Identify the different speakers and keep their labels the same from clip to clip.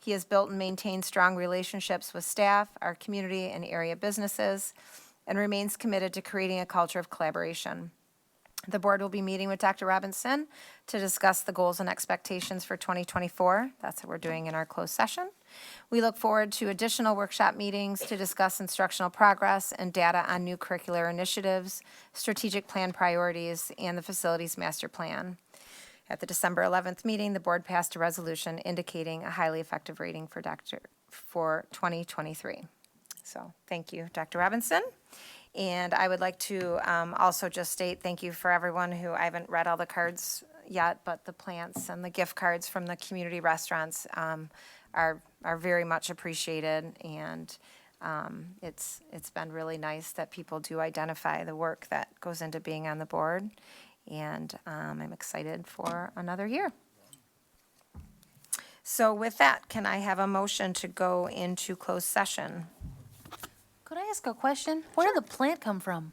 Speaker 1: He has built and maintained strong relationships with staff, our community, and area businesses, and remains committed to creating a culture of collaboration. The board will be meeting with Dr. Robinson to discuss the goals and expectations for 2024. That's what we're doing in our closed session. We look forward to additional workshop meetings to discuss instructional progress and data on new curricular initiatives, strategic plan priorities, and the facilities master plan. At the December 11th meeting, the board passed a resolution indicating a highly effective rating for Dr., for 2023. So, thank you, Dr. Robinson. And I would like to um, also just state thank you for everyone who, I haven't read all the cards yet, but the plants and the gift cards from the community restaurants um, are, are very much appreciated. And um, it's, it's been really nice that people do identify the work that goes into being on the board. And um, I'm excited for another year. So with that, can I have a motion to go into closed session?
Speaker 2: Could I ask a question? Where did the plant come from?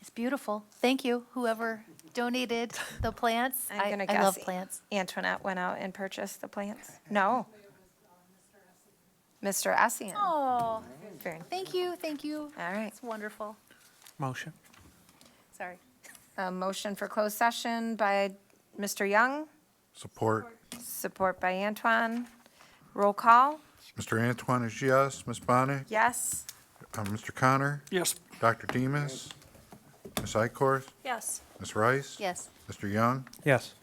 Speaker 2: It's beautiful. Thank you, whoever donated the plants.
Speaker 1: I'm
Speaker 2: I-
Speaker 1: gonna
Speaker 2: I love
Speaker 1: guess
Speaker 2: plants.
Speaker 1: Antoinette went out and purchased the plants? No. Mr. Essien.
Speaker 2: Oh,
Speaker 1: Very-
Speaker 2: thank you, thank you.
Speaker 1: All right.
Speaker 2: It's wonderful.
Speaker 3: Motion.
Speaker 2: Sorry.
Speaker 1: A motion for closed session by Mr. Young,
Speaker 4: Support.
Speaker 1: support by Antoine. Roll call,
Speaker 4: Mr. Antoine is yes. Ms. Bonnet?
Speaker 1: yes?
Speaker 4: Uh, Mr. Connor?
Speaker 3: Yes.
Speaker 4: Dr. Demas? Ms. Ikorth?
Speaker 1: Yes.
Speaker 4: Ms. Rice?
Speaker 2: Yes.
Speaker 4: Mr. Young?
Speaker 3: Yes.